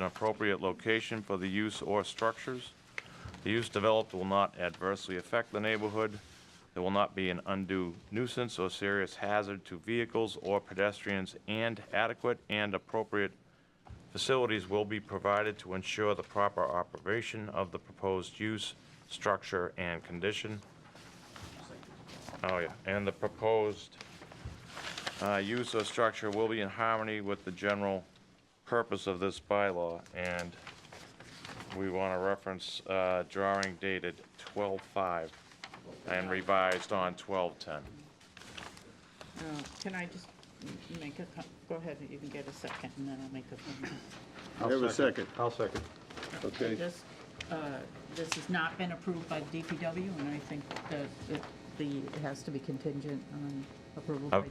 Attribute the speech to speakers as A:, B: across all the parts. A: an appropriate location for the use or structures. The use developed will not adversely affect the neighborhood. There will not be an undue nuisance or serious hazard to vehicles or pedestrians, and adequate and appropriate facilities will be provided to ensure the proper operation of the proposed use, structure, and condition. Oh, yeah, and the proposed uh, use or structure will be in harmony with the general purpose of this bylaw, and we want to reference uh, drawing dated 12/5 and revised on 12/10.
B: Uh, Can I just m- make a, co- go ahead, you can get a second, and then I'll make a comment.
C: I have a second,
D: I'll second.
C: okay?
B: This, uh, this has not been approved by the DPW, and I think that it- the, it has to be contingent on approval by,
A: Of-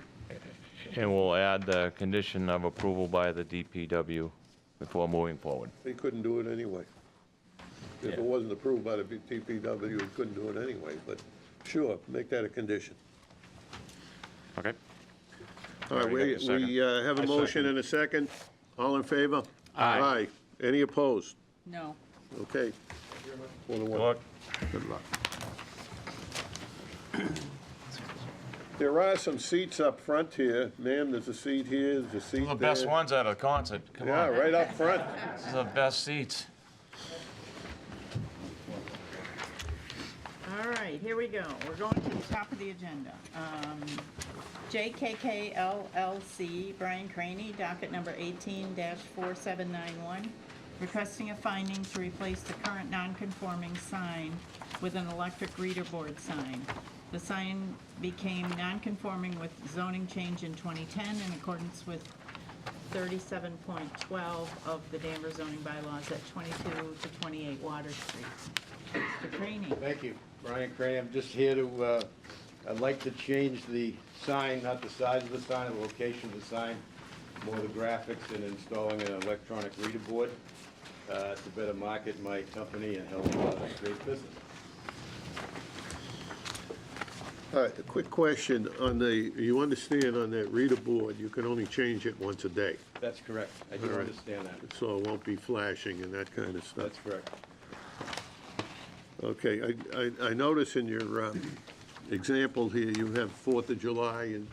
A: And we'll add the condition of approval by the DPW before moving forward.
C: They couldn't do it anyway. If
A: Yeah.
C: it wasn't approved by the DPW, they couldn't do it anyway, but sure, make that a condition.
A: Okay?
C: All right,
A: Already
C: we,
A: got the
C: we uh, have a
D: I
C: motion
D: second.
C: and a second. All in favor? Aye. Any opposed?
B: no.
C: Okay. Four to one.
A: Look,
C: Good luck. There are some seats up front here. Ma'am, there's a seat here, there's a seat
A: the
C: there.
A: best ones at a concert, come
C: Yeah,
A: on,
C: right up front.
A: this is the best seats.
B: All right, here we go. We're going to the top of the agenda. Um, JKK LLC, Brian Craney, docket number 18-4791, requesting a finding to replace the current non-conforming sign with an electric reader board sign. The sign became non-conforming with zoning change in 2010 in accordance with 37.12 of the Danvers zoning bylaws at 22 to 28 Water Street. Mr. Craney.
E: Thank you. Brian Crane, I'm just here to, uh, I'd like to change the sign, not the size of the sign, the location of the sign, more the graphics and installing an electronic reader board uh, to better market my company and help uh, create business.
C: All right, a quick question on the, you understand on that reader board, you can only change it once a day,
E: That's correct. I do understand that.
C: so it won't be flashing and that kind of stuff.
E: That's correct.
C: Okay, I, I, I notice in your, uh, example here, you have Fourth of July, and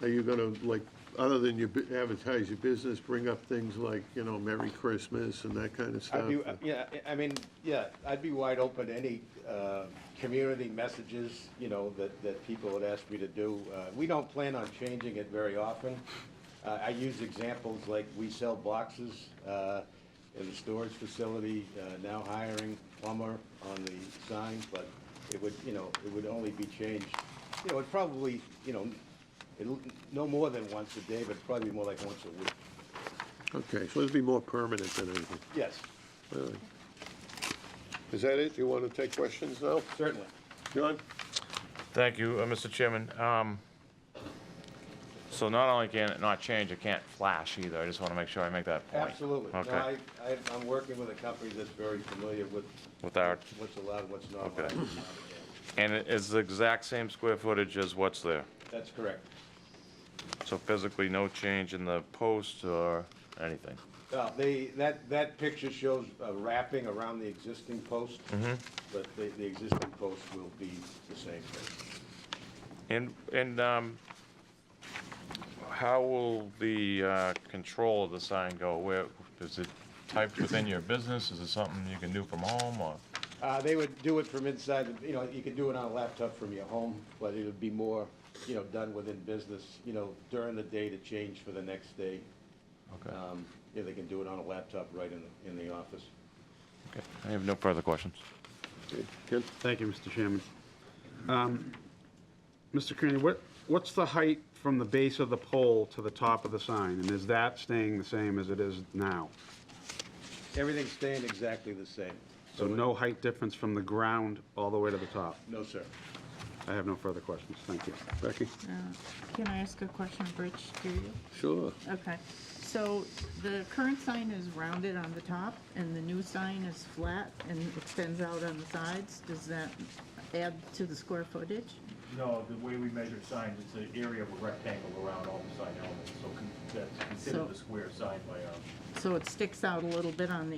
C: are you gonna, like, other than you bu- advertise your business, bring up things like, you know, Merry Christmas and that kind of
E: I'd
C: stuff?
E: be, uh, yeah, I- I mean, yeah, I'd be wide open to any, uh, community messages, you know, that, that people would ask me to do. Uh, we don't plan on changing it very often. Uh, I use examples like we sell boxes, uh, in the storage facility, uh, now hiring plumber on the sign, but it would, you know, it would only be changed, you know, it probably, you know, it'll, no more than once a day, but probably more like once a week.
C: Okay, so it'd be more permanent than anything.
E: Yes,
C: All right. Is that it? You wanna take questions now?
E: certainly.
C: John?
A: Thank you, uh, Mr. Chairman. Um, So not only can it not change, it can't flash either. I just want to make sure I make that point.
E: Absolutely. No, I,
A: Okay,
E: I, I'm working with a company that's very familiar with
A: with our,
E: what's allowed, what's not allowed.
A: Okay. and it is the exact same square footage as what's there.
E: That's correct.
A: So physically, no change in the post or anything.
E: Now, Uh, they, that, that picture shows a wrapping around the existing post.
A: Mm-hmm.
E: But the, the existing post will be the same thing.
A: And, and um, how will the uh, control of the sign go? Where, is it typed within your business? Is it something you can do from home or?
E: Uh, they would do it from inside, the- you know, you could do it on a laptop from your home, but it would be more, you know, done within business, you know, during the day to change for the next day.
A: Okay.
E: Um, yeah, they can do it on a laptop right in, the- in the office.
A: Okay, I have no further questions.
C: Okay, Ken?
D: Thank you, Mr. Chairman. Um, Mr. Kearney, what, what's the height from the base of the pole to the top of the sign? And is that staying the same as it is now?
E: Everything's staying exactly the same.
D: So no height difference from the ground all the way to the top?
E: No, sir.
D: I have no further questions. Thank you.
C: Becky?
B: Can I ask a question, Rich, do you?
C: Sure.
B: Okay, so the current sign is rounded on the top, and the new sign is flat and extends out on the sides. Does that add to the square footage?
F: No, the way we measure signs, it's an area of a rectangle around all the sign elements, so con- that's
B: So-
F: considered the square sign by our
B: So it sticks out a little bit on the